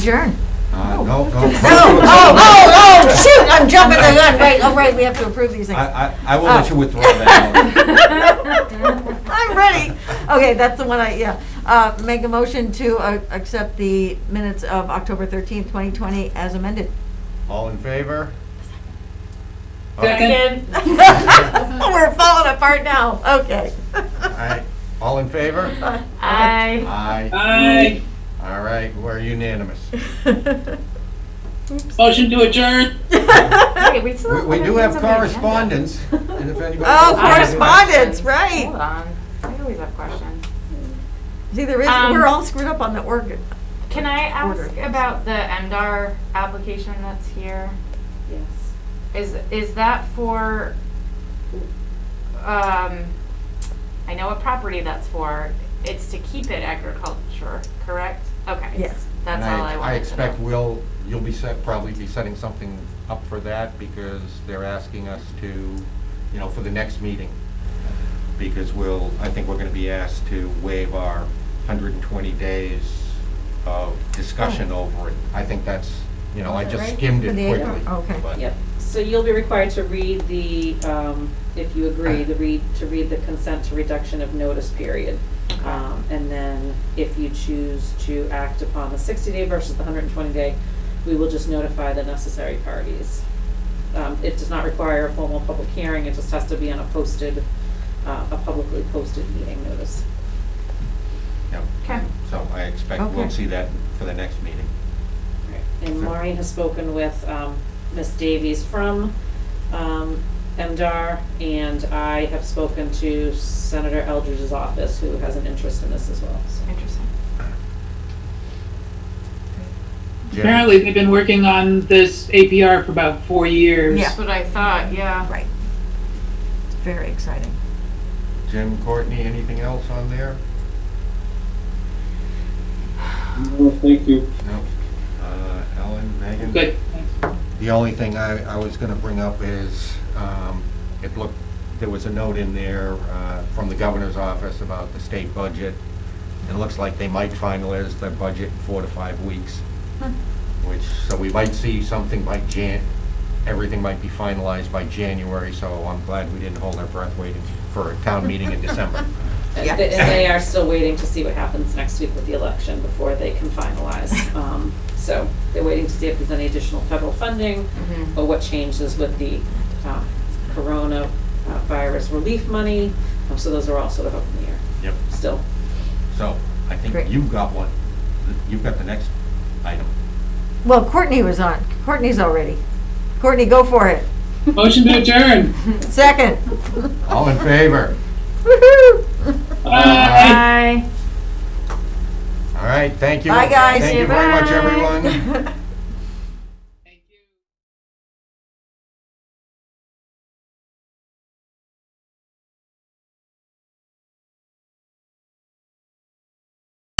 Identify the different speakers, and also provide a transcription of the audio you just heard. Speaker 1: Adjourn.
Speaker 2: Uh, No, no.
Speaker 1: Oh, oh, oh, oh, shoot, I'm jumping the gun, right, oh, right, we have to approve these things.
Speaker 2: I, I, I will let you withdraw that.
Speaker 1: I'm ready. Okay, that's the one I, yeah. Uh, Make a motion to uh, accept the minutes of October 13th, 2020 as amended.
Speaker 2: All in favor?
Speaker 3: Second.
Speaker 1: We're falling apart now, okay.
Speaker 2: Aye. All in favor?
Speaker 3: Aye.
Speaker 2: Aye.
Speaker 3: Aye.
Speaker 2: All right, we're unanimous.
Speaker 3: Motion to adjourn.
Speaker 4: Wait, we still
Speaker 2: We we
Speaker 4: have other
Speaker 2: do have
Speaker 4: things on the agenda.
Speaker 2: correspondence, and if anybody.
Speaker 1: Oh,
Speaker 2: wants to-
Speaker 1: correspondence,
Speaker 4: Hold
Speaker 1: right.
Speaker 4: on. I always have questions.
Speaker 1: See, there is,
Speaker 4: Um,
Speaker 1: we're all screwed up on the organ.
Speaker 4: Can I
Speaker 1: Order.
Speaker 4: ask about the MDR application that's here? Yes. Is, is that for, um, I know what property that's for. It's to keep it agriculture, correct? Okay.
Speaker 1: Yes.
Speaker 4: That's
Speaker 2: And
Speaker 4: all I wanted to know.
Speaker 2: I expect we'll, you'll be set, probably be setting something up for that, because they're asking us to, you know, for the next meeting. Because we'll, I think we're gonna be asked to waive our hundred and twenty days of discussion
Speaker 4: Oh.
Speaker 2: over it. I think that's, you know, I just skimmed
Speaker 1: For the
Speaker 2: it
Speaker 1: acre?
Speaker 2: quickly.
Speaker 1: Okay.
Speaker 2: but-
Speaker 5: Yep, so you'll be required to read the, um, if you agree, the read, to read the consent to reduction of notice period. Um, And then if you choose to act upon the 60-day versus the 120-day, we will just notify the necessary parties. Um, It does not require a formal public hearing, it just has to be on a posted, uh, a publicly posted meeting notice.
Speaker 2: Yep.
Speaker 4: Okay.
Speaker 2: So I expect we'll
Speaker 1: Okay.
Speaker 2: see that for the next meeting.
Speaker 5: And
Speaker 2: Sure.
Speaker 5: Maureen has spoken with um, Ms. Davies from um, MDR, and I have spoken to Senator Eldridge's office, who has an interest in this as well. so.
Speaker 4: Interesting.
Speaker 2: Jim?
Speaker 3: Apparently, they've been working on this APR for about four years.
Speaker 1: Yeah.
Speaker 4: That's what I thought, yeah.
Speaker 1: Right. It's Very exciting.
Speaker 2: Jim, Courtney, anything else on there?
Speaker 6: No, thank you.
Speaker 2: No. Uh, Ellen, Megan?
Speaker 3: Good.
Speaker 2: The only thing I, I was gonna bring up is, um, it looked, there was a note in there, uh, from the governor's office about the state budget. It looks like they might finalize their budget in four to five weeks, which, so we might see something by Jan, everything might be finalized by January, so I'm glad we didn't hold our breath waiting for a town meeting in December.
Speaker 1: Yeah.
Speaker 5: And they- and they are still waiting to see what happens next week with the election before they can finalize. Um, So they're waiting to see if there's any additional federal funding or what changes with the uh, coronavirus relief money. Um, So those are all sort of up in the air
Speaker 2: Yep.
Speaker 5: still.
Speaker 2: So, I
Speaker 1: Great.
Speaker 2: think you've got one, you've got the next item.
Speaker 1: Well, Courtney was on. Courtney's already. Courtney, go for it.
Speaker 3: Motion to adjourn.
Speaker 1: Second.
Speaker 2: All in favor?
Speaker 1: Woohoo!
Speaker 3: Aye.
Speaker 4: Bye.
Speaker 2: All right, thank you.
Speaker 1: Bye, guys.
Speaker 2: Thank you very much,
Speaker 4: Bye.
Speaker 2: everyone.